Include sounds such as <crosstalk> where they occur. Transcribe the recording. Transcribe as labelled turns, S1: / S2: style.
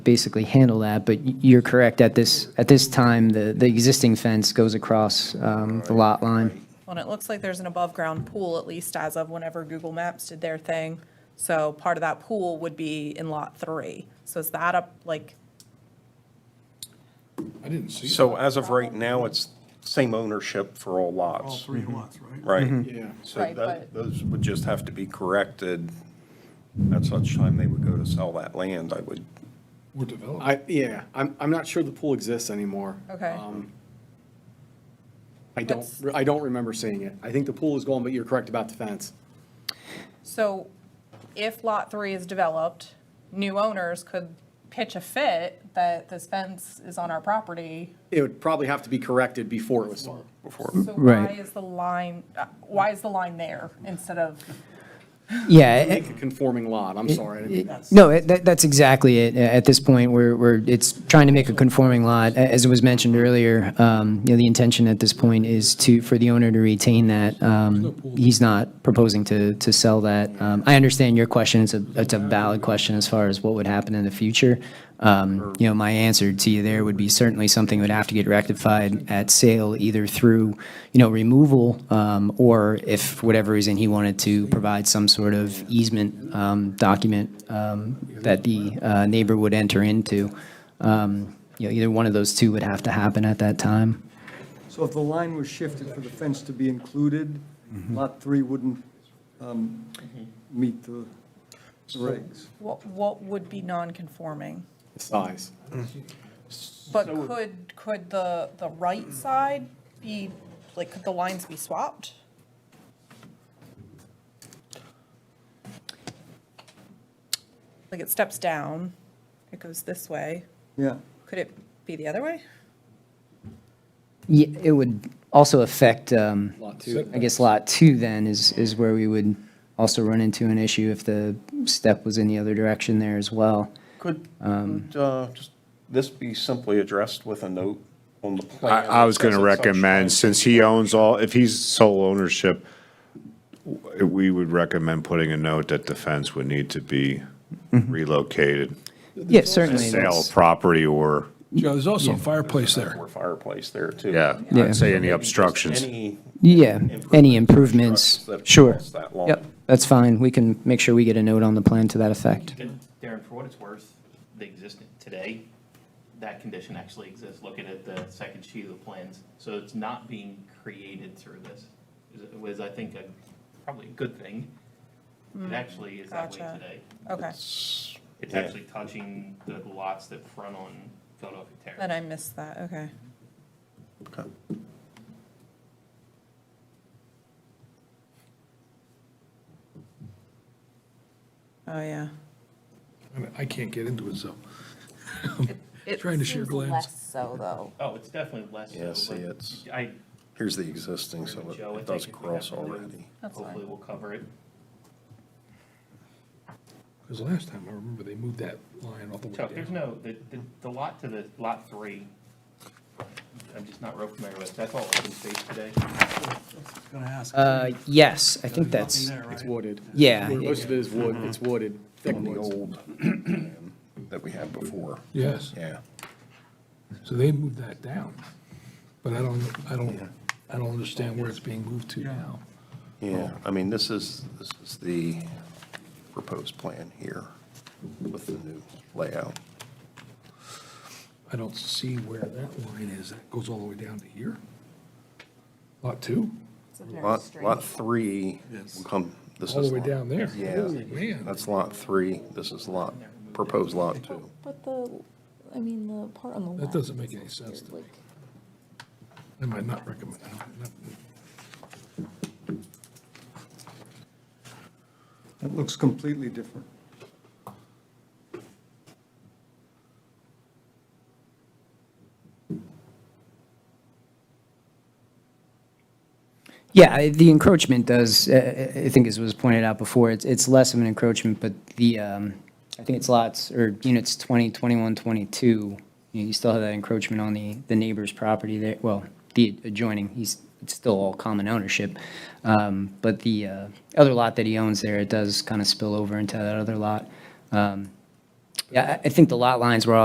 S1: basically handle that, but y- you're correct, at this, at this time, the, the existing fence goes across um, the lot line.
S2: Well, and it looks like there's an above-ground pool, at least as of whenever Google Maps did their thing. So part of that pool would be in Lot 3. So is that up, like,
S3: I didn't see it.
S4: So as of right now, it's same ownership for all
S3: All
S4: lots,
S5: Mm-hmm.
S3: three lots, right?
S6: Mm-hmm.
S4: right?
S3: Yeah.
S4: So
S2: Right, but-
S4: that- those would just have to be corrected at such time they would go to sell that land, I would,
S3: We're developing.
S5: I, yeah, I'm, I'm not sure the pool exists anymore.
S2: okay,
S5: Um, I don't,
S2: What's-
S5: re- I don't remember seeing it. I think the pool is gone, but you're correct about the fence.
S2: so if Lot 3 is developed, new owners could pitch a fit that this fence is on our property.
S5: It would probably have to be corrected before it was sold.
S2: So why
S1: Right.
S2: is the line, uh, why is the line there instead of,
S1: Yeah,
S5: Make a conforming lot, I'm sorry. I didn't mean that.
S1: No, it- that, that's exactly it. A- At this point, we're, we're, it's trying to make a conforming lot. A- As was mentioned earlier, um, you know, the intention at this point is to, for the owner to retain that. Um, He's not proposing to, to sell that. Um, I understand your question. It's a, it's a valid question as far as what would happen in the future. Um, You know, my answer to you there would be certainly something would have to get rectified at sale, either through, you know, removal, um, or if, for whatever reason, he wanted to provide some sort of easement um, document um, that the uh, neighbor would enter into. Um, You know, either one of those two would have to happen at that time.
S7: So if the line was shifted for the fence to be included, lot three wouldn't um, meet the regs.
S2: what, what would be non-conforming?
S5: The Size.
S2: But could, could the, the right side be, like, could the lines be swapped? Like, it steps down, it goes this way.
S7: Yeah,
S2: Could it be the other way?
S1: Yeah, It would also affect, um,
S5: Lot two.
S1: I guess, Lot 2 then is, is where we would also run into an issue if the step was in the other direction there as well.
S4: could,
S6: Um,
S4: could, uh, just this be simply addressed with a note on the
S6: I,
S4: plan?
S6: I was
S4: that
S6: going to
S4: says at such time-
S6: recommend, since he owns all, if he's sole ownership, w- we would recommend putting a note that the fence would need to be relocated.
S1: Yeah, Mm-hmm. certainly.
S6: Sale of
S1: that's-
S6: property or,
S3: Joe, there's also a fireplace there.
S4: Or fireplace there too.
S6: yeah,
S1: Yeah.
S6: I'd say any obstructions.
S4: Any
S1: Yeah, any improvements,
S4: improvements that
S1: sure.
S4: cross that line.
S1: Yep, that's fine. We can make sure we get a note on the plan to that effect.
S8: And Darren, for what it's worth, they exist today, that condition actually exists, looking at the second sheet of the plans. So it's not being created through this, is- was, I think, a- probably a good thing. It actually is that way
S2: Hmm. Gotcha.
S8: today.
S2: Okay,
S8: It's
S4: Yeah.
S8: actually touching the lots that front on Philadelphia Terrace.
S2: then I missed that, okay. Oh, yeah.
S3: I mean, I can't get into it, so. <laughs>
S2: It
S3: Trying to share
S2: seems
S3: glance.
S2: Less so, though.
S8: Oh, it's definitely less. so,
S4: Yeah, see,
S8: but
S4: it's-
S8: I,
S4: Here's the existing, so it-
S8: Joe, I
S4: it
S8: think
S4: does
S8: if we
S4: cross
S8: have to do it,
S4: already.
S2: That's fine.
S8: hopefully we'll cover it.
S3: Because last time, I remember they moved that line all the way
S8: Chuck, there's
S3: down.
S8: no, the, the- the lot to the, lot three, I'm just not real familiar with, that's all open space today.
S1: Uh, yes, I think that's,
S5: It's wooded.
S1: yeah,
S5: Most of it is wood, it's wooded, thick
S4: On the
S5: woods.
S4: old that we had before,
S3: Yes,
S4: yeah.
S3: so they moved that down. But I don't, I don't, I don't understand where it's being moved to now.
S4: Yeah, I mean, this is, this is the proposed plan here with the new layout.
S3: I don't see where that line is. That goes all the way down to here. Lot two,
S2: It's a very
S4: Lot,
S2: strange-
S4: lot three will come, this is.
S3: all the way
S4: lot-
S3: down there.
S4: Yeah,
S3: Holy man.
S4: that's lot three, this is lot, proposed lot two.
S9: But the, I mean, the part on the left.
S3: That doesn't make
S9: is
S3: any
S9: also
S3: sense to
S9: weird,
S3: I might not recommend.
S7: that looks completely different.
S1: yeah, I- the encroachment does, uh, I think as was pointed out before, it's, it's less of an encroachment, but the, um, I think it's lots, or units 20, 21, 22, you know, you still have that encroachment on the, the neighbor's property there, well, the adjoining, he's, it's still all common ownership. Um, But the uh, other lot that he owns there, it does kind of spill over into that other lot. Um, Yeah, I I think the lot lines were all.